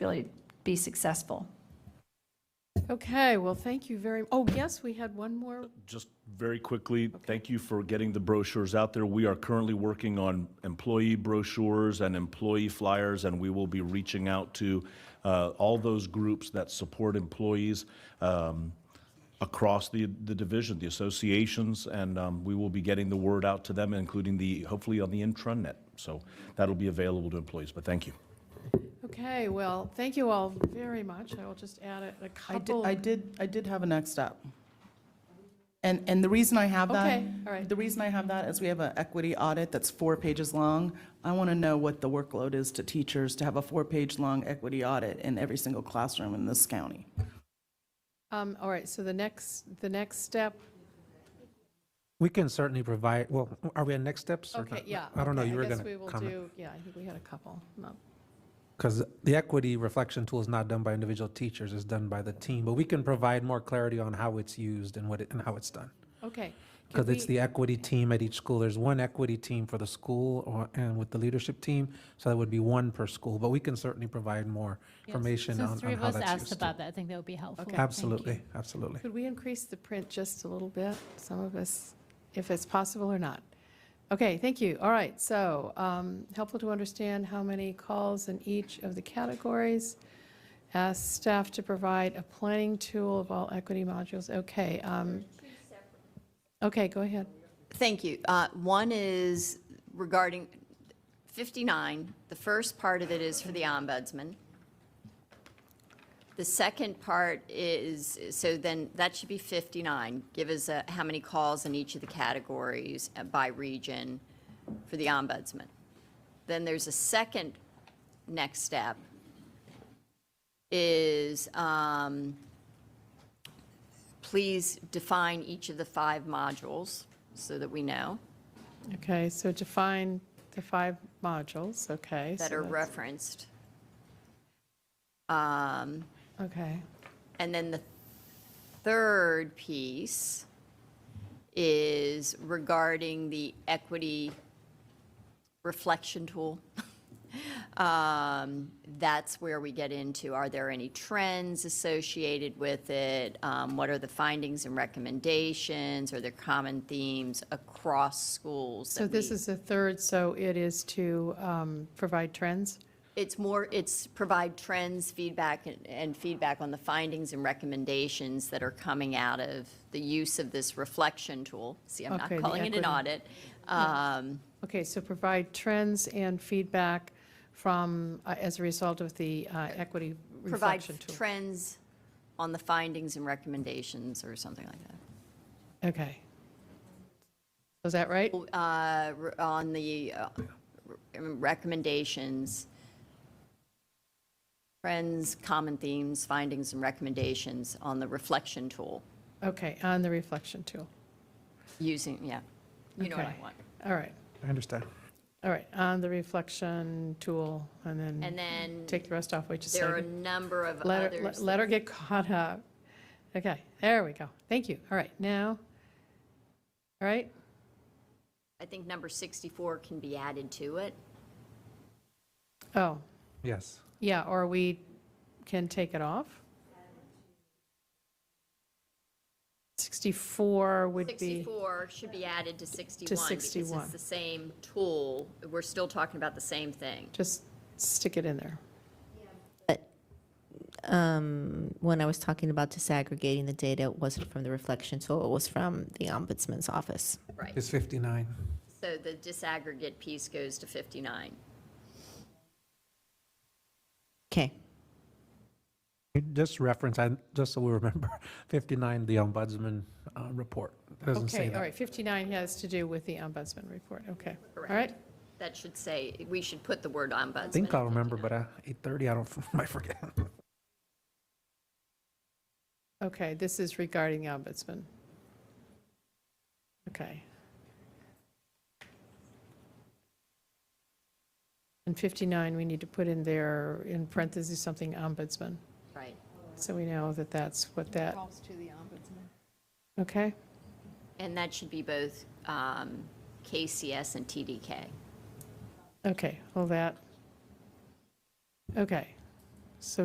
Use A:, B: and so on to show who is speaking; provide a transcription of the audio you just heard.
A: really be successful.
B: Okay, well, thank you very, oh, yes, we had one more.
C: Just very quickly, thank you for getting the brochures out there. We are currently working on employee brochures and employee flyers, and we will be reaching out to uh, all those groups that support employees um, across the, the division, the associations, and um, we will be getting the word out to them, including the, hopefully on the intranet. So that'll be available to employees, but thank you.
B: Okay, well, thank you all very much. I will just add a- a
D: I did,
B: couple.
D: I did, I did have a next step. And, and the reason I have that.
B: Okay, all right.
D: The reason I have that is we have an equity audit that's four pages long. I want to know what the workload is to teachers to have a four-page-long equity audit in every single classroom in this county.
B: Um, All right, so the next, the next step,
E: We can certainly provide, well, are we on next steps? or
B: okay,
E: not?
B: yeah.
E: I don't know,
B: okay,
E: you were
B: guess
E: going
B: we
E: to
B: will
E: comment.
B: do- Yeah, I think we had a couple. No.
E: Because the equity reflection tool is not done by individual teachers, it's done by the team. But we can provide more clarity on how it's used and what, it- and how it's done.
B: Okay. could
E: Because it's
B: we-
E: the equity team at each school. There's one equity team for the school or, and with the leadership team. So that would be one per school, but we can certainly provide more information on
F: Since
E: on
F: three of
E: how
F: us
E: that's
F: asked
E: used.
F: about that, I think that would be helpful. Thank you.
E: Absolutely, absolutely.
B: Could we increase the print just a little bit? Some of us, if it's possible or not. Okay, thank you. All right, so um, helpful to understand how many calls in each of the categories. Ask staff to provide a planning tool of all equity modules. Okay. um, Okay, go ahead.
G: Thank you. Uh, One is regarding 59. The first part of it is for the ombudsman. The second part is, so then, that should be 59. Give us uh, how many calls in each of the categories uh, by region for the ombudsman. Then there's a second next step is um, please define each of the five modules so that we know.
B: Okay, so define the five modules, okay. so
G: that are
B: that's-
G: referenced. Um,
B: Okay,
G: And then the third piece is regarding the equity reflection tool. Um, That's where we get into, are there any trends associated with it? Um, What are the findings and recommendations? Are there common themes across schools?
B: so
G: that
B: this
G: we-
B: is the third, so it is to um, provide trends?
G: It's more, it's provide trends, feedback, and- and feedback on the findings and recommendations that are coming out of the use of this reflection tool. See, I'm not
B: Okay, the
G: calling it an
B: equity.
G: audit. Um,
B: Okay, so provide trends and feedback from, uh, as a result of the uh, equity
G: Provide
B: reflection tool.
G: trends on the findings and recommendations or something like that.
B: Okay. Was that right?
G: Uh, re- On the uh, re- recommendations, trends, common themes, findings and recommendations on the reflection tool,
B: Okay, on the reflection tool.
G: using, yeah, you know what I
B: Okay.
G: want.
B: All right,
E: I understand.
B: all right, on the reflection tool, and
G: And
B: then
G: then.
B: take the rest off, we just
G: There are a
B: said.
G: number of
B: Let her,
G: others.
B: let- let her get caught up. Okay, there we go. Thank you. All right, now, all right,
G: I think number 64 can be added to it.
B: oh,
E: Yes.
B: yeah, or we can take it off. 64 would be.
G: 64 should be added to 61. Because
B: 61.
G: it's the same tool. We're still talking about the same thing.
B: just stick it in there.
H: when I was talking about disaggregating the data, it wasn't from the reflection tool, it was from the ombudsman's office.
G: Right.
E: It's 59.
G: So the disaggregate piece goes to 59.
H: Okay.
E: Just reference, I, just so we remember, 59, the ombudsman uh, report. It doesn't say
B: Okay, all
E: that.
B: right, 59 has to do with the ombudsman report, okay. All
G: Correct.
B: right,
G: That should say, we should put the word ombudsman.
E: I think I'll remember, but uh, 8:30, I don't, I forget.
B: okay, this is regarding the ombudsman. Okay. And 59, we need to put in there, in parentheses, something ombudsman,
G: Right.
B: so we know that that's what that. Calls to the ombudsman. Okay,
G: And that should be both um, KCS and TDK.
B: okay, hold that. Okay, So